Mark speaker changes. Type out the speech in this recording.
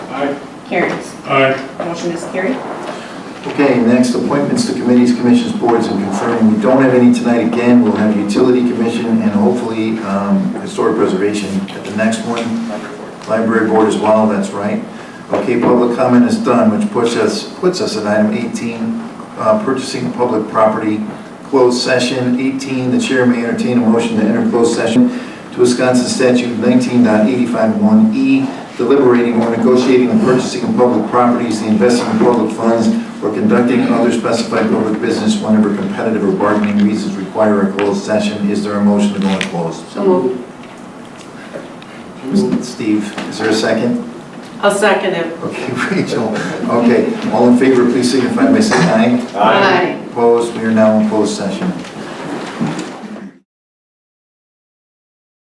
Speaker 1: Aye.
Speaker 2: Carries.
Speaker 1: Aye.
Speaker 2: Motion is carried.
Speaker 3: Okay, next, appointments to committees, commissions, boards, and confirming. We don't have any tonight again. We'll have utility commission and hopefully um, historic preservation at the next one. Library board as well, that's right. Okay, public comment is done, which puts us, puts us at item 18, uh, purchasing public property, closed session. 18, the chair may entertain a motion to enter closed session to Wisconsin statute 19.851E, E, deliberating or negotiating the purchasing of public properties, the investing of public funds, or conducting other specified public business whenever competitive or bargaining reasons require a closed session. Is there a motion to go into closed?
Speaker 2: So moved.
Speaker 3: Steve, is there a second?
Speaker 2: I'll second it.
Speaker 3: Okay, Rachel. Okay, all in favor, please signify by saying aye. Opposed, we are now in closed session.